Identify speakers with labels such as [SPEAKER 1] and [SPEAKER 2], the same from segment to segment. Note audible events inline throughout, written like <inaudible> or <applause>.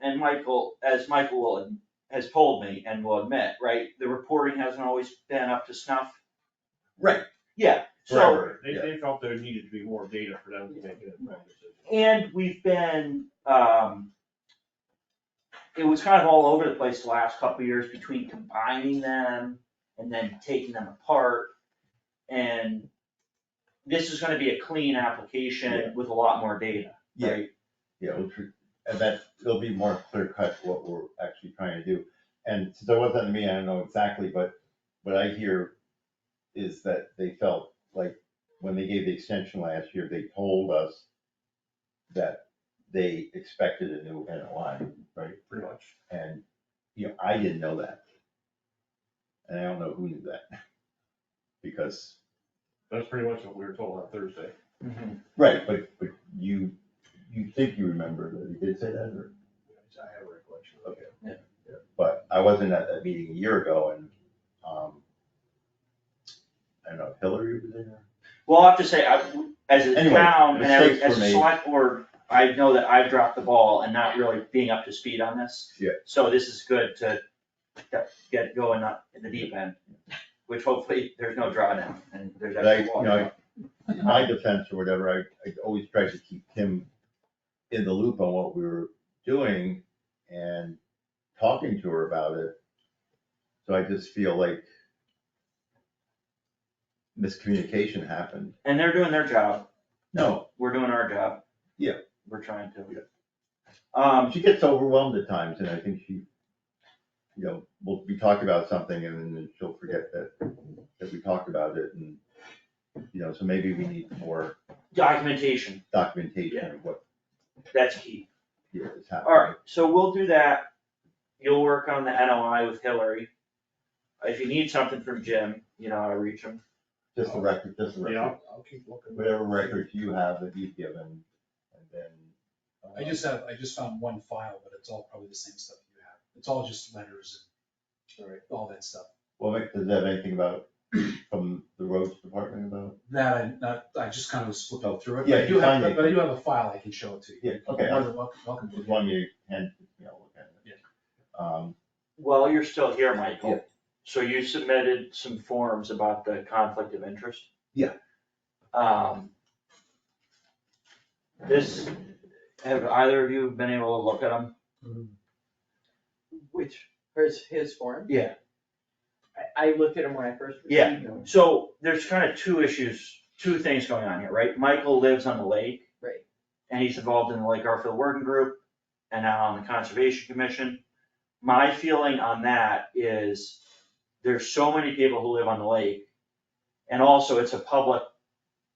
[SPEAKER 1] and Michael, as Michael will, has told me and will admit, right, the reporting hasn't always been up to snuff.
[SPEAKER 2] Right.
[SPEAKER 1] Yeah, so,
[SPEAKER 2] Right,
[SPEAKER 3] They,
[SPEAKER 2] yeah.
[SPEAKER 3] they felt there needed to be more data for them to make an informed decision.
[SPEAKER 1] and we've been, um, it was kind of all over the place the last couple of years between combining them and then taking them apart. And this is gonna be a clean application with a lot more data,
[SPEAKER 2] Yeah.
[SPEAKER 1] right?
[SPEAKER 2] Yeah, which, we- and that, it'll be more clear cut what we're actually trying to do. And since I wasn't in the meeting, I don't know exactly, but what I hear is that they felt like when they gave the extension last year, they told us that they expected a new NOI, right?
[SPEAKER 3] Pretty much.
[SPEAKER 2] And, you know, I didn't know that. And I don't know who knew that. <laughs> Because,
[SPEAKER 3] That's pretty much what we were told on Thursday.
[SPEAKER 2] right, but, but you, you think you remember that he did say that, or?
[SPEAKER 3] I have a recollection.
[SPEAKER 2] Okay. but I wasn't at that meeting a year ago and, um, I don't know, if Hillary was in there.
[SPEAKER 1] Well, I have to say, I, as a
[SPEAKER 2] Anyway,
[SPEAKER 1] town and every-
[SPEAKER 2] mistakes
[SPEAKER 1] as
[SPEAKER 2] were
[SPEAKER 1] a
[SPEAKER 2] made.
[SPEAKER 1] select board, I know that I've dropped the ball and not really being up to speed on this.
[SPEAKER 2] Yeah.
[SPEAKER 1] So this is good to get- get going up in the deep end, which hopefully there's no drawdown and there's
[SPEAKER 2] But I,
[SPEAKER 1] actually
[SPEAKER 2] you
[SPEAKER 1] water.
[SPEAKER 2] know, in my defense or whatever, I, I always tried to keep him in the loop on what we were doing and talking to her about it. So I just feel like miscommunication happened.
[SPEAKER 1] And they're doing their job,
[SPEAKER 2] No,
[SPEAKER 1] we're doing our job.
[SPEAKER 2] Yeah.
[SPEAKER 1] We're trying to.
[SPEAKER 2] Yeah.
[SPEAKER 1] Um,
[SPEAKER 2] she gets overwhelmed at times and I think she, you know, we'll be talking about something and then she'll forget that, that we talked about it and, you know, so maybe we need more
[SPEAKER 1] documentation,
[SPEAKER 2] documentation of what,
[SPEAKER 1] that's key.
[SPEAKER 2] you know, is happening.
[SPEAKER 1] Alright, so we'll do that. You'll work on the NOI with Hillary. If you need something from Jim, you know how to reach him.
[SPEAKER 2] Just the record, just the
[SPEAKER 3] Yeah,
[SPEAKER 2] record,
[SPEAKER 3] I'll, I'll keep looking.
[SPEAKER 2] whatever records you have that you've given and then. uh,
[SPEAKER 4] I just have, I just found one file, but it's all probably the same stuff you have. It's all just letters and all that stuff.
[SPEAKER 2] Well, wait, does that have anything about, <clears throat> from the roads department about?
[SPEAKER 4] That I, not, I just kind of was flipping through it,
[SPEAKER 2] Yeah,
[SPEAKER 4] but I do
[SPEAKER 2] you find
[SPEAKER 4] have,
[SPEAKER 2] it.
[SPEAKER 4] but I do have a file I can show it to you.
[SPEAKER 2] Yeah, okay,
[SPEAKER 4] You're more
[SPEAKER 2] I
[SPEAKER 4] than welcome, welcome to
[SPEAKER 2] just
[SPEAKER 4] it.
[SPEAKER 2] wanted you and, you know, look at it. Um,
[SPEAKER 1] Well, you're still here,
[SPEAKER 2] Yeah.
[SPEAKER 1] Michael. So you submitted some forms about the conflict of interest?
[SPEAKER 2] Yeah.
[SPEAKER 1] Um. This, have either of you been able to look at them?
[SPEAKER 5] Which, his, his form?
[SPEAKER 1] Yeah.
[SPEAKER 5] I, I looked at him when I first
[SPEAKER 1] Yeah.
[SPEAKER 5] received them.
[SPEAKER 1] So there's kind of two issues, two things going on here, right? Michael lives on the lake.
[SPEAKER 5] Right.
[SPEAKER 1] And he's involved in the Lake Garfield Working Group and now on the Conservation Commission. My feeling on that is there's so many people who live on the lake. And also it's a public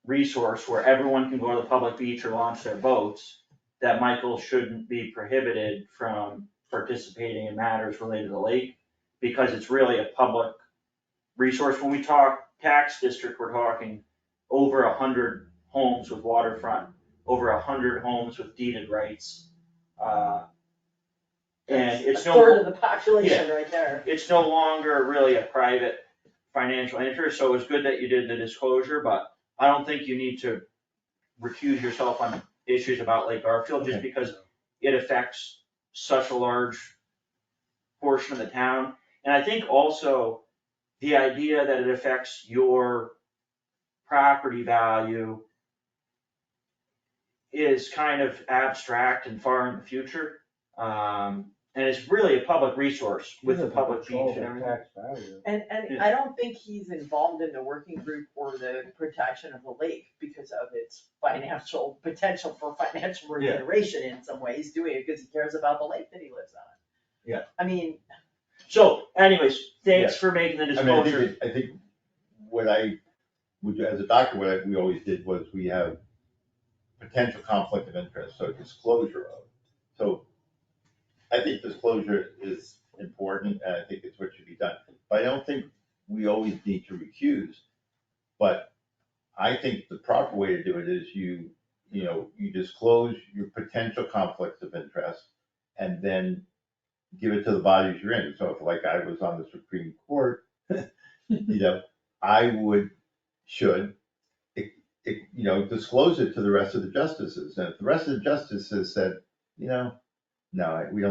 [SPEAKER 1] resource where everyone can go to the public beach or launch their boats. That Michael shouldn't be prohibited from participating in matters related to the lake because it's really a public resource, when we talk tax district, we're talking over a hundred homes with waterfront, over a hundred homes with deeded rights. Uh, And
[SPEAKER 5] That's
[SPEAKER 1] it's
[SPEAKER 5] A third
[SPEAKER 1] no,
[SPEAKER 5] of the population right there.
[SPEAKER 1] it's no longer really a private financial interest, so it was good that you did the disclosure, but I don't think you need to recuse yourself on issues about Lake Garfield, just
[SPEAKER 2] Okay.
[SPEAKER 1] because it affects such a large portion of the town. And I think also the idea that it affects your property value is kind of abstract and far in the future. Um, and it's really a public resource with the public beach and everything.
[SPEAKER 5] And, and
[SPEAKER 1] Yeah.
[SPEAKER 5] I don't think he's involved in the working group or the protection of the lake because of its financial, potential for financial remuneration in some ways, doing it because he cares about the lake that he lives on.
[SPEAKER 1] Yeah.
[SPEAKER 5] I mean,
[SPEAKER 1] So anyways, thanks for making the
[SPEAKER 2] I mean, I think,
[SPEAKER 1] disclosure.
[SPEAKER 2] it- I think what I, would do as a doctor, what I, we always did was we have potential conflict of interest, so disclosure of. So I think disclosure is important, and I think it's what should be done. But I don't think we always need to recuse. But I think the proper way to do it is you, you know, you disclose your potential conflicts of interest and then give it to the bodies you're in. So if like I was on the Supreme Court, you know, I would, should, it, it, you know, disclose it to the rest of the justices. And if the rest of the justices said, you know, no, I- we don't